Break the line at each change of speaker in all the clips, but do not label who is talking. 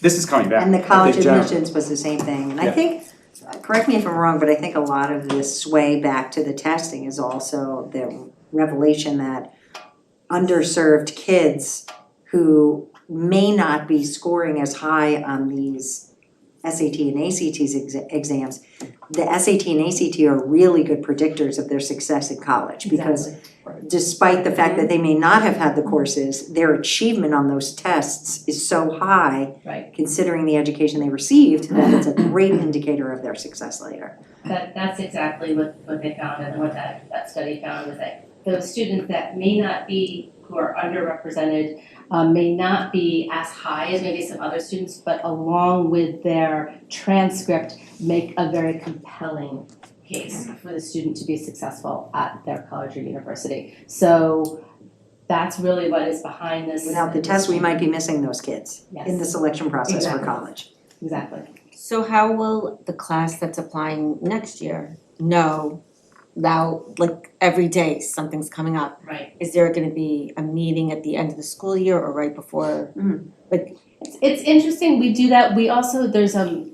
This is coming back.
And the
I think
college
generally-
admissions was the same thing, and I
Yeah.
think, correct me if I'm wrong, but I think a lot of this sway back to the testing is also the revelation that underserved kids who may not be scoring as high on these SAT and ACTs exa- exams, the SAT and ACT are really good predictors of their success in college, because despite the fact that they may not have had the courses, their achievement on those tests is so high.
Right.
Considering the education they received, that it's a great indicator of their success later.
That, that's exactly what, what they found and what that, that study found was that those students that may not be, who are underrepresented, um, may not be as high as maybe some other students, but along with their transcript, make a very compelling case for the student to be successful at their college or university. So that's really what is behind this.
Without the test, we might be missing those kids in the
Yes,
selection process for
Exactly.
college.
exactly.
So how will the class that's applying next year know now, like every day something's coming up?
Right.
Is there gonna be a meeting at the end of the school year or right before?
It's, it's interesting, we do that, we also, there's, um,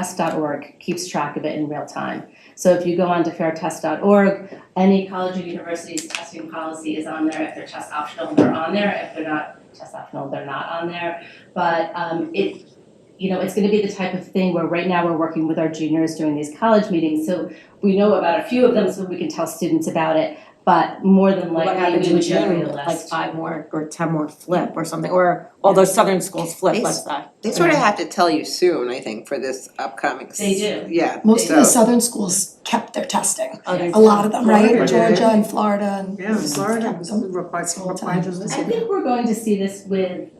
fairtest.org keeps track of it in real time. So if you go on to fairtest.org, any college or university's testing policy is on there, if they're test optional, they're on there, if they're not test optional, they're not on there. But, um, it, you know, it's gonna be the type of thing where right now we're working with our juniors during these college meetings, so we know about a few of them, so we can tell students about it, but more than
What
likely,
happens
we
in
would generate
June,
a list.
like five more or ten more flip or something, or all those southern schools flip,
They
what's that?
They sort of have to tell you soon, I think, for this upcoming. s-
They do.
Yeah.
Most of
so-
the southern schools kept their testing,
Oh, there's-
a lot of them, right?
Florida did.
Georgia and Florida and.
Yeah, Florida,
Some-
replied,
some
replied to this.
I think we're going to see this with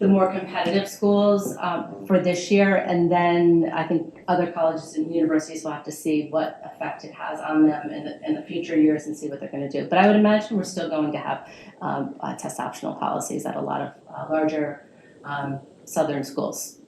the more competitive schools um, for this year, and then I think other colleges and universities will have to see what effect it has on them in the, in the future years and see what they're gonna do. But I would imagine we're still going to have um, uh, test optional policies at a lot of uh, larger um, southern schools.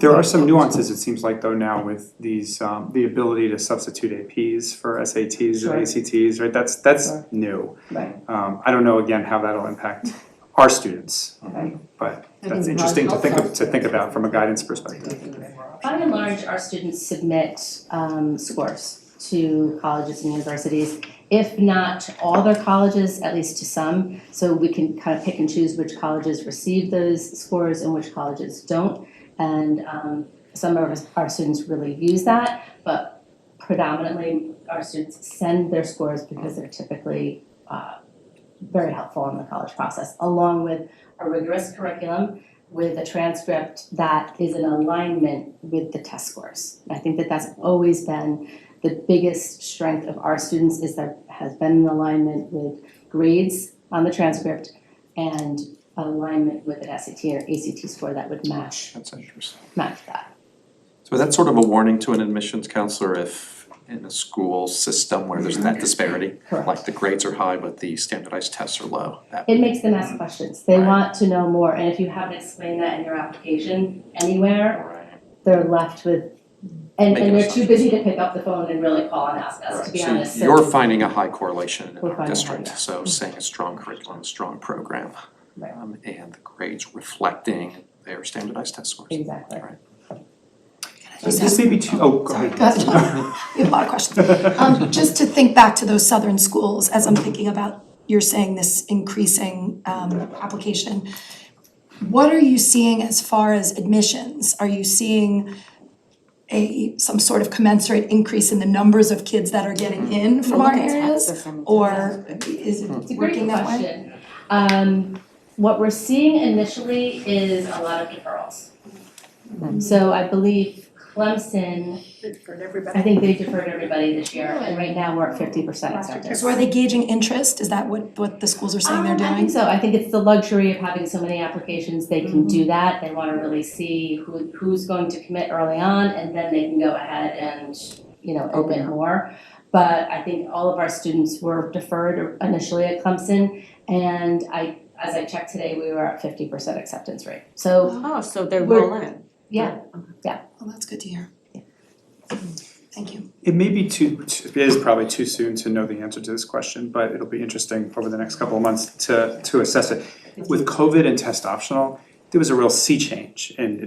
There are some nuances, it seems like though now with these, um, the ability to substitute APs for SATs
Sure.
and ACTs, right? That's, that's
Sure.
new.
Right.
Um, I don't know again how that'll impact our students, um,
Right.
but
I
that's
think
interesting to
large
think of,
health
to think about from a guidance perspective.
By and large, our students submit um, scores to colleges and universities, if not to all their colleges, at least to some. So we can kind of pick and choose which colleges receive those scores and which colleges don't. And um, some of our- our students really use that, but predominantly our students send their scores because they're typically uh, very helpful in the college process, along with a rigorous curriculum with a transcript that is in alignment with the test scores. I think that that's always been the biggest strength of our students is that has been in alignment with grades on the transcript and alignment with an SAT or ACT score that would match
That's interesting.
match that.
So that's sort of a warning to an admissions counselor if in a school system where there's that disparity, like the grades are high, but the standardized tests are low. That-
It makes them ask questions. They
Right.
want to know more, and if you haven't explained that in your application anywhere, they're left with and and
Making
they're too busy to pick up the phone and really call and ask us, to be
Right,
honest.
so you're finding a high correlation in
We're
our
finding a high,
district,
yeah.
so saying a strong curriculum, a strong program.
Right.
um, and the grades reflecting their standardized test scores.
Exactly.
Just
This may be too, oh, go ahead.
Go ahead. We have a lot of questions. Um, just to think back to those southern schools, as I'm thinking about, you're saying this increasing, um, application. What are you seeing as far as admissions? Are you seeing a, some sort of commensurate increase in the numbers of kids that are getting in
Mm-hmm.
from our
Look at
areas?
Texas and-
Or is it
It's a great
working that way?
question. Um, what we're seeing initially is a lot of deferrals.
Mm-hmm.
So I believe Clemson,
For everybody.
I think they deferred everybody this year, and right now we're at fifty percent acceptance.
So are they gauging interest? Is that what, what the schools are saying they're
Um, I think
doing?
so, I think it's the luxury of having so many applications, they can
Mm-hmm.
do that, they wanna really see who, who's going to commit early on, and then they can go ahead and, you know,
Open
open more. But I think all of our students were deferred initially at Clemson, and I, as I checked today, we were at fifty percent acceptance rate. So,
Oh, so they're
We're-
rolling.
yeah,
Well, that's good to hear. Thank you.
It may be too, too- it is probably too soon to know the answer to this question, but it'll be interesting over the next couple of months to, to assess it. With COVID and test optional, there was a real sea change in